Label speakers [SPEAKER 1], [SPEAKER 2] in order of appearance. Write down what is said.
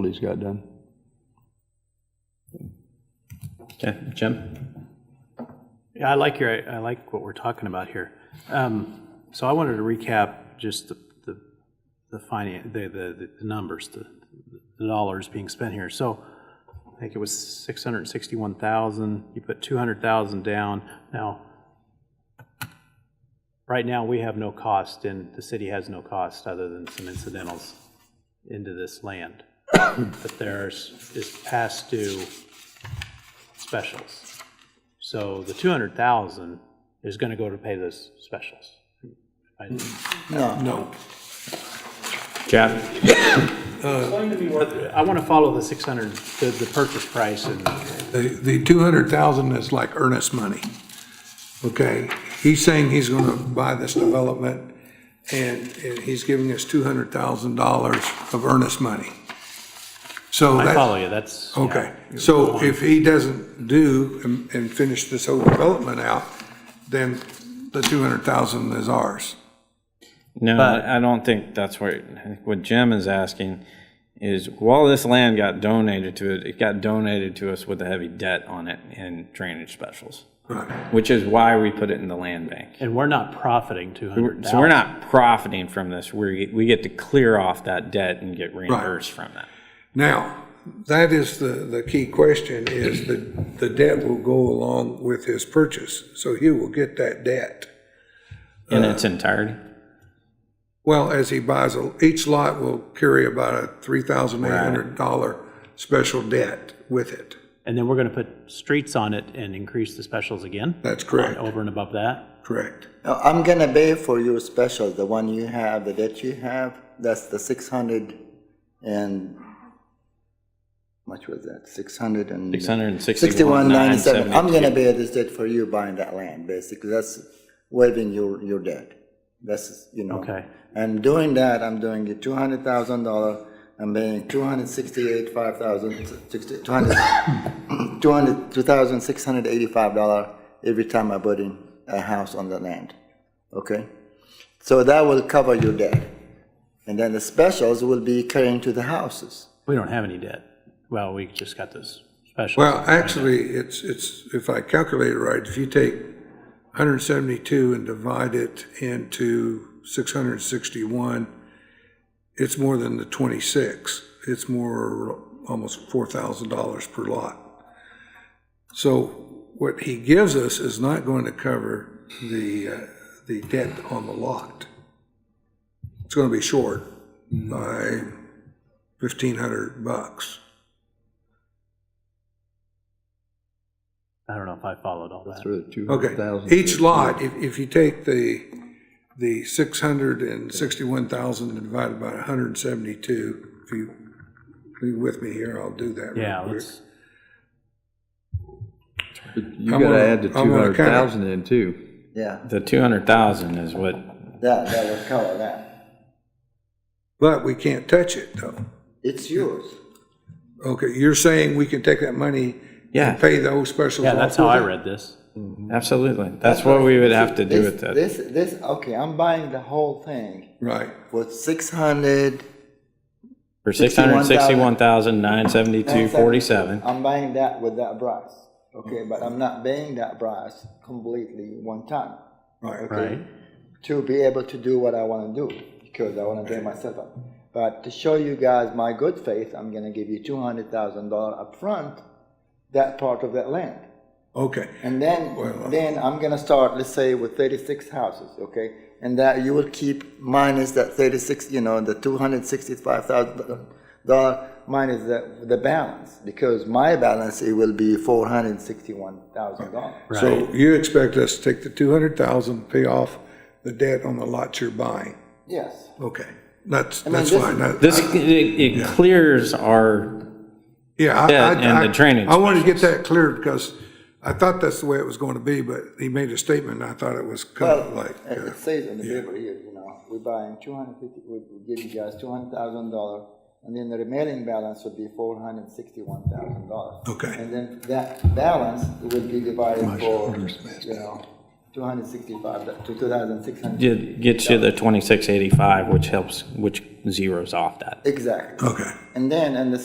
[SPEAKER 1] he's got done.
[SPEAKER 2] Okay, Jim?
[SPEAKER 3] Yeah, I like your, I like what we're talking about here. Um, So I wanted to recap just the, the, the finan the, the, the numbers, the, the dollars being spent here. So I think it was six hundred and sixty-one thousand, you put two hundred thousand down. Now, right now, we have no cost and the city has no cost other than some incidentals into this land. But there's, is past due specials. So the two hundred thousand is gonna go to pay those specials. I-
[SPEAKER 4] No.
[SPEAKER 2] Jeff?
[SPEAKER 3] I wanna follow the six hundred, the, the purchase price and,
[SPEAKER 4] The, the 200,000 is like earnest money, okay? He's saying he's going to buy this development, and, and he's giving us $200,000 of earnest money. So
[SPEAKER 3] I
[SPEAKER 4] that's.
[SPEAKER 3] follow you, that's. yeah.
[SPEAKER 4] Okay, so if he doesn't do and, and finish this whole development out, then the two hundred thousand is ours.
[SPEAKER 2] No, I I don't think that's what, I think what Jim is asking is while this land got donated to it, it got donated to us with a heavy debt on it and drainage specials,
[SPEAKER 4] Right,
[SPEAKER 2] which is why we put it in the land bank.
[SPEAKER 3] And we're not profiting two hundred
[SPEAKER 2] So we're
[SPEAKER 3] thousand.
[SPEAKER 2] not profiting from this. We, we get to clear off that debt and get reimbursed from that.
[SPEAKER 4] now, that is the, the key question, is the, the debt will go along with his purchase, so he will get that debt.
[SPEAKER 2] In its entirety?
[SPEAKER 4] Well, as he buys, a- each lot will carry about a three thousand eight hundred dollar special debt with it,
[SPEAKER 3] And then we're gonna put streets on it and increase the specials again?
[SPEAKER 4] That's correct.
[SPEAKER 3] Over and above that?
[SPEAKER 4] correct?
[SPEAKER 5] Now, I'm gonna pay for your special, the one you have, the debt you have, that's the six hundred and, much was that, six hundred and? Sixty-one ninety-seven, I'm gonna
[SPEAKER 2] 661,972.
[SPEAKER 5] pay this debt for you buying that land, basically, that's waiving your, your debt. That's, you know.
[SPEAKER 3] Okay.
[SPEAKER 5] And doing that, I'm doing it two hundred thousand dollar, I'm paying two hundred sixty-eight, five thousand, sixty, two hundred, two hundred, two thousand six hundred eighty-five dollar every time I put in a house on the land, okay? So that will cover your debt. And then the specials will be carrying to the houses.
[SPEAKER 3] We don't have any debt. Well, we just got those specials.
[SPEAKER 4] Well, actually, it's, it's, if I calculate it right, if you take 172 and divide it into 661, it's more than the 26. It's more, almost $4,000 per lot. So what he gives us is not going to cover the, uh, the debt on the lot. It's going to be short by 1,500 bucks.
[SPEAKER 3] I don't know if I followed all that.
[SPEAKER 1] For the two hundred
[SPEAKER 4] Okay,
[SPEAKER 1] thousand.
[SPEAKER 4] each lot, if, if you take the, the six hundred and sixty-one thousand and divided by hundred and seventy-two, if you, be with me here, I'll do that. real
[SPEAKER 3] Yeah,
[SPEAKER 4] quick.
[SPEAKER 3] let's,
[SPEAKER 1] You
[SPEAKER 4] I'm
[SPEAKER 1] gotta
[SPEAKER 4] gonna-
[SPEAKER 1] add the
[SPEAKER 4] I'm
[SPEAKER 1] two
[SPEAKER 4] gonna
[SPEAKER 1] hundred
[SPEAKER 4] cut it.
[SPEAKER 1] thousand in too.
[SPEAKER 5] Yeah,
[SPEAKER 2] The 200,000 is what,
[SPEAKER 5] that, that will cover that.
[SPEAKER 4] But we can't touch it, though.
[SPEAKER 5] It's yours.
[SPEAKER 4] Okay, you're saying we can take that money and
[SPEAKER 2] yeah,
[SPEAKER 4] pay those specials
[SPEAKER 3] yeah,
[SPEAKER 4] off?
[SPEAKER 3] that's how I
[SPEAKER 4] with
[SPEAKER 3] read this.
[SPEAKER 2] absolutely. That's what we would have to do
[SPEAKER 5] This-
[SPEAKER 2] with that.
[SPEAKER 5] This, this, okay, I'm buying the whole thing
[SPEAKER 4] it? Right,
[SPEAKER 5] for six hundred.
[SPEAKER 2] For 661,972.47.
[SPEAKER 5] I'm buying that with that price, okay, but I'm not paying that price completely one time.
[SPEAKER 4] right.
[SPEAKER 3] Right.
[SPEAKER 5] to be able to do what I want to do because I want to pay myself up. But to show you guys my good faith, I'm going to give you two hundred thousand dollar upfront, that part of that land,
[SPEAKER 4] Okay,
[SPEAKER 5] and then
[SPEAKER 4] Well, uh,
[SPEAKER 5] then I'm going to start, let's say, with thirty six houses, okay, and that you will keep minus that thirty six, you know, the two hundred sixty five thousand dollar minus the the balance because my balance it will be four hundred sixty one thousand dollars.
[SPEAKER 4] so you expect us to take the two hundred thousand, pay off the debt on the lots you're buying?
[SPEAKER 5] Yes.
[SPEAKER 4] Okay, that's,
[SPEAKER 5] I mean,
[SPEAKER 4] that's
[SPEAKER 5] this-
[SPEAKER 4] fine. I-
[SPEAKER 2] This, it- it clears our,
[SPEAKER 4] Yeah. I-
[SPEAKER 2] Debt
[SPEAKER 4] I-
[SPEAKER 2] and the
[SPEAKER 4] I-
[SPEAKER 2] drainage
[SPEAKER 4] I wanted to get that clear because I thought that's the way it was going to be, but he made a statement and I thought it was kind
[SPEAKER 5] Well,
[SPEAKER 4] of like,
[SPEAKER 5] it
[SPEAKER 4] uh,
[SPEAKER 5] it says on the paper here, you know, we're buying two hundred fifty, we we give you guys two hundred thousand dollar, and then the remaining balance would be four hundred sixty-one thousand dollars.
[SPEAKER 4] Okay.
[SPEAKER 5] And then that balance will be divided for, you know, two hundred sixty-five, to two thousand six hundred.
[SPEAKER 2] it gets you the 2685, which helps, which zeros off that.
[SPEAKER 5] Exactly.
[SPEAKER 4] okay.
[SPEAKER 5] And then, and the